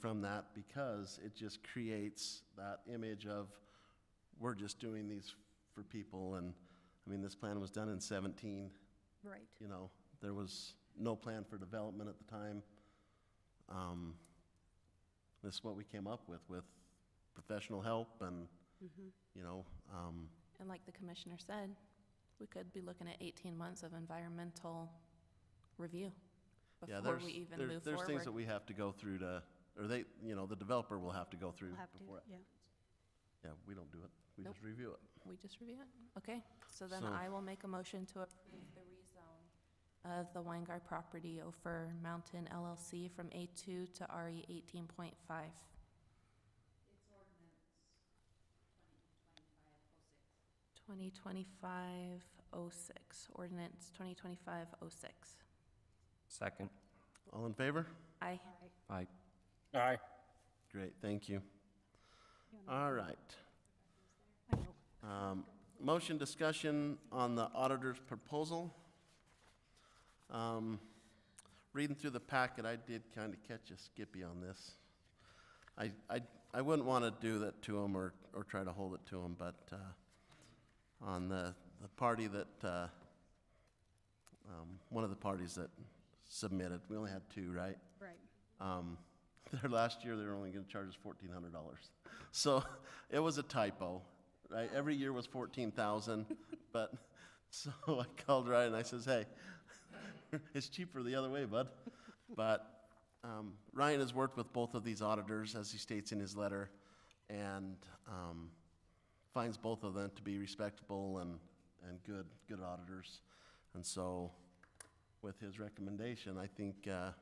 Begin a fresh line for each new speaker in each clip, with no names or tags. from that because it just creates that image of, we're just doing these for people, and, I mean, this plan was done in seventeen,
Right.
you know, there was no plan for development at the time. Um, This is what we came up with, with professional help and,
Mm-hmm.
you know, um,
And like the commissioner said, we could be looking at 18 months of environmental review
yeah,
before
there's,
we even
there-
move
there's things that
forward.
we have to go through to, or they, you know, the developer will have to go through
We'll have to,
before it.
yeah.
Yeah, we don't do it, we
Nope.
just review it.
We just review it? Okay, so then
So-
I will make a motion to approve the rezone of the Weingar property over Mountain LLC from A2 to E RE 18.5. Twenty twenty-five oh six, ordinance twenty twenty-five oh six.
Second.
All in favor?
Aye.
Aye.
Aye.
Great, thank you.
You wanna-
All right.
I know.
Um, Motion discussion on the auditor's proposal. Um, Reading through the packet, I did kind of catch a Skippy on this. I, I, I wouldn't want to do that to him or, or try to hold it to him, but uh, on the, the party that, uh, um, one of the parties that submitted, we only had two, right?
Right.
Um, their last year, they were only gonna charge us fourteen hundred dollars. So it was a typo, right? Every year was fourteen thousand, but, so I called Ryan and I says, hey, it's cheaper the other way, bud. But, um, Ryan has worked with both of these auditors, as he states in his letter, and, um, finds both of them to be respectable and, and good, good auditors. And so, with his recommendation, I think, uh,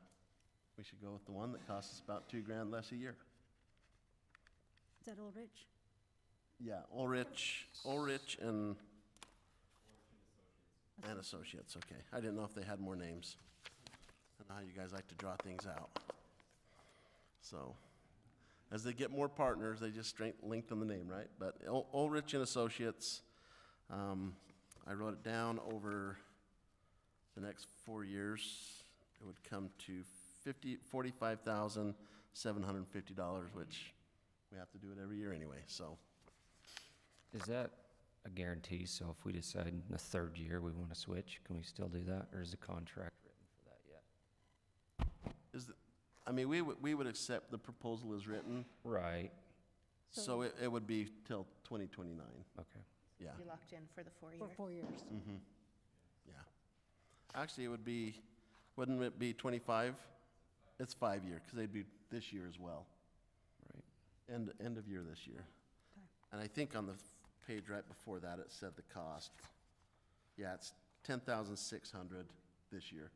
we should go with the one that costs us about two grand less a year.
Is that Old Rich?
Yeah, Ulrich, Ulrich and. And Associates, okay. I didn't know if they had more names. I know how you guys like to draw things out. So, as they get more partners, they just strength, lengthen the name, right? But Ul- Ulrich and Associates, um, I wrote it down over the next four years. It would come to fifty, forty-five thousand, seven hundred and fifty dollars, which we have to do it every year anyway, so.
Is that a guarantee? So if we decide in the third year we want to switch, can we still do that? Or is the contract written for that yet?
Is, the- I mean, we would, we would accept the proposal as written,
Right,
so it, it would be till twenty twenty-nine,
okay.
yeah,
You locked in for the four-year.
For four years.
yeah. Actually, it would be, wouldn't it be twenty-five? It's five-year, because they'd be this year as well,
Right.
end, end of year this year.
Okay.
And I think on the f- page right before that, it said the cost. Yeah, it's ten thousand six hundred this year.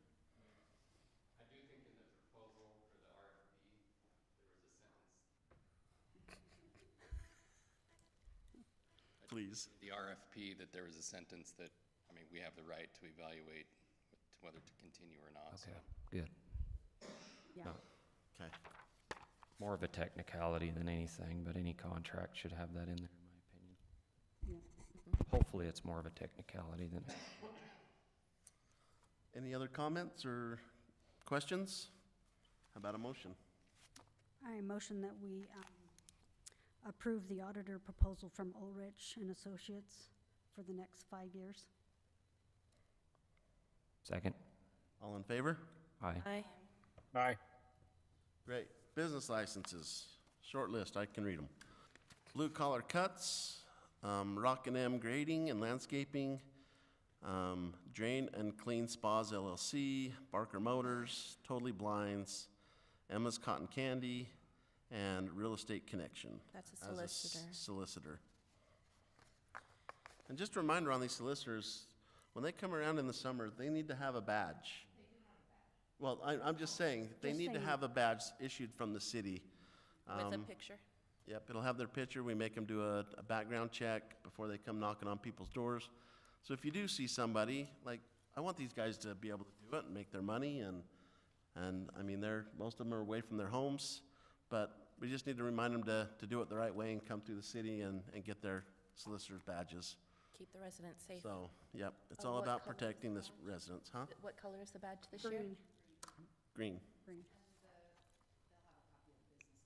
Please.
the RFP that there was a sentence that, I mean, we have the right to evaluate whether to continue or not, so.
Okay, good.
Yeah.
No,
Okay,
More of a technicality than anything, but any contract should have that in there, in my opinion.
Yeah.
Hopefully, it's more of a technicality than,
any other comments or questions? How about a motion?
I motion that we um, approve the auditor proposal from Ulrich and Associates for the next five years.
second?
All in favor?
Aye.
Aye.
Aye.
Great. Business licenses, short list, I can read them. Blue collar cuts, um, Rock and M grading and landscaping, um, Drain and Clean Spas LLC, Barker Motors, Totally Blinds, Emma's Cotton Candy, and Real Estate Connection.
That's a
as s-
solicitor.
Solicitor. And just a reminder on these solicitors, when they come around in the summer, they need to have a badge. Well, I, I'm just saying, they
Just
need to
saying.
have a badge issued from the city.
With a
Um,
picture.
Yep, it'll have their picture, we make them do a, a background check before they come knocking on people's doors. So if you do see somebody, like, I want these guys to be able to do it and make their money and, and, I mean, they're, most of them are away from their homes, but we just need to remind them to, to do it the right way and come through the city and, and get their solicitor's badges.
Keep the residents safe.
So, yep, it's
Uh,
all
what
about
color is
protecting the s- residents, huh?
What color is the badge this year?
Green,
Green.
green.